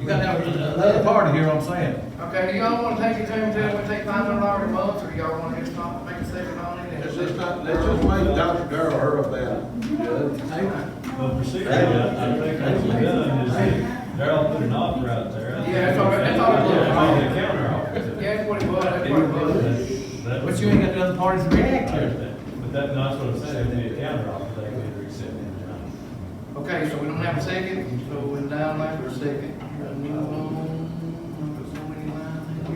You got to have another party here, I'm saying. Okay, do y'all wanna take it to him, tell him we take five hundred dollars a month, or do y'all wanna just not make a statement on it? and- Let's just not, let's just make Dr. Darrell hear of that. But procedurally, I I think that's what done is that they're all putting an offer out there. Yeah, that's all right, that's all it was. I mean, the counter offer. Yeah, that's what it was, that's what it was. But you ain't got the other parties to react I to. understand. But that, that's what I'm saying, it'd be a counter offer, they could accept it. Okay, so we don't have a second, so we're down like for a second. Gotta move on. There's so many lines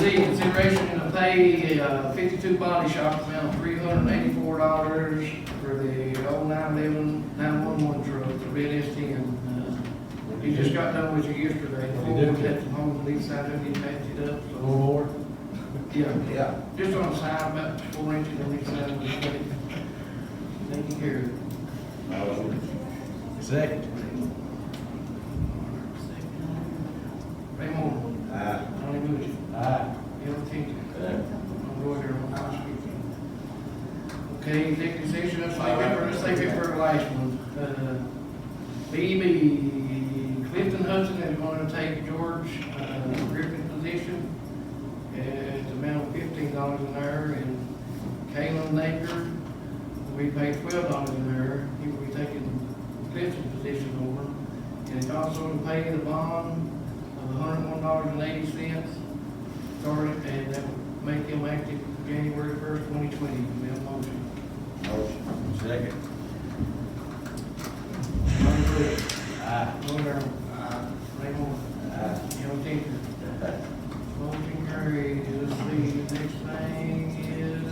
in here now. Okay, Z, consideration to pay uh, fifty-two body shop amount three hundred and eighty-four dollars for the old nine eleven, nine one one truck, the red S ten. Uh, You just got done with you yesterday, the We did. we had some home lease out of it, patched it up, A so, little more. yeah. Yeah. Just on the side, about four inches on each side of the plate. Thank you, Gary. Second. Ray Moore, Aye. Donnie Bush, Aye. Bill Tingley, Roy Darrell, Tom Sweet. Okay, executive session, let's leave it for, let's leave it for the last one. Uh, BB Clifton Hudson is going to take George uh, Griffin's position at the amount of fifteen dollars an hour, and Kalen Napier will be paid twelve dollars an hour. He will be taking Clifton's position over. And it's also to pay the bond of hundred and one dollars and eighty cents, starting, and that will make him active January first, twenty twenty. May I have a motion? Motion. Second. Donnie Bush. Aye. Roy Darrell. Ray Moore. Aye. Al Changer. Motion carries. Let's see, the next thing is,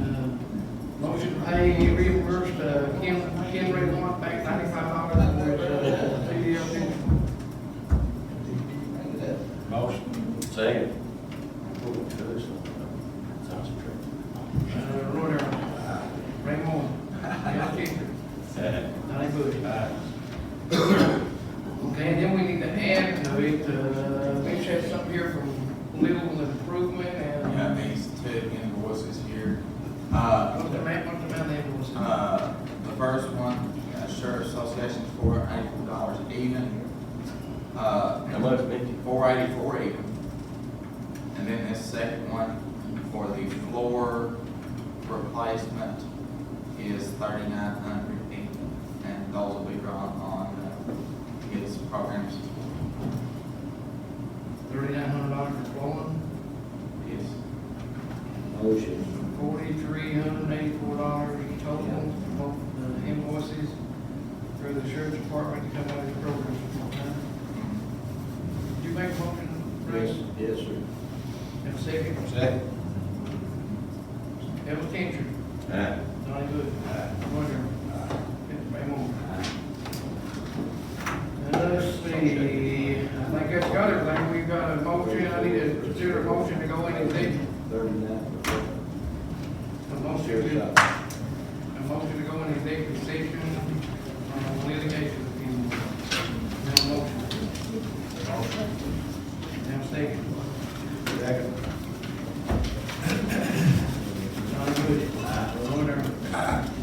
uh, motion to pay reimbursed, uh, Kim, Kim Ray Warren back ninety-five dollars for uh, CDL pension. Motion. Second. Sounds good. Uh, Roy Darrell. Ray Moore. Al Changer. Donnie Bush. Okay, then we need to add to it, uh, we should have something here from legal improvement We and, have these two invoices here. Uh, what's the amount, what's the amount that was? uh, the first one, uh, Sheriff Association, four eighty-four dollars even. Uh, How much, Mickey? four eighty-four even. And then this second one for the floor replacement is thirty-nine hundred even. And those will be drawn on uh, his programs. Thirty-nine hundred dollars for flooring, Yes. Motion. forty-three hundred eighty-four dollars total for both the invoices for the sheriff's department to come out of the program. mm-hmm. Did you make a motion, Rex? Yes, sir. Have a second? Second. Have a tension. Aye. Donnie Bush. Aye. Roger. Aye. Ray Moore. Now, Let's see, I think that's got everything. We've got a motion. I need to consider a motion to go in and take Thirty-nine. a motion. Here's to- a- A motion to go in executive session on litigation appeal. Now motion. Now second. Second. John Wood. Roy Darrell.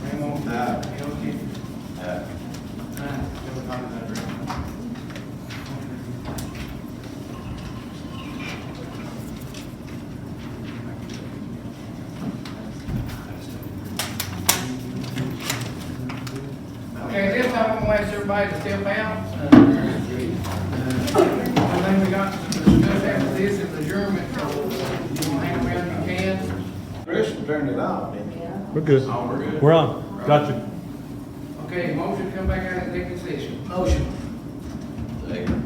Raymond. Aye. Al Changer. Aye. Aye. Bill Conley. Okay, this time I'm gonna ask everybody to step out. Uh, uh, One thing we got to discuss after this is adjournment, so if you wanna hang around, you can. Chris turned it off, didn't he? We're good. Oh, we're good. We're on. Got you. Okay, motion come back out of executive session. Motion. Second.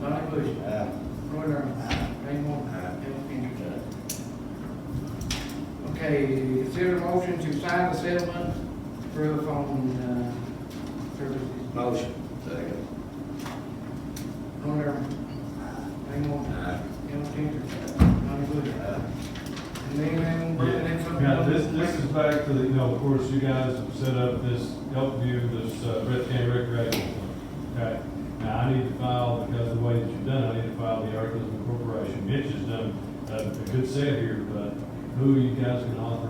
Donnie Bush. Aye. Roy Darrell. Ray Moore. Aye. Al Changer. Aye. Okay, consider motion to sign the settlement proof on, uh, services. Motion. Second. Roy Darrell. Ray Moore. Aye. Al Changer. Donnie Bush. And then, uh, and then something. Yeah, this, this is back to the, you know, of course, you guys set up this Elkview, this uh, Breath County Recreation. Fund, Okay, now I need to file, because of the way that you've done, it, I need to file the articles of incorporation. Mitch has done uh, a good set here, but who are you guys gonna authorize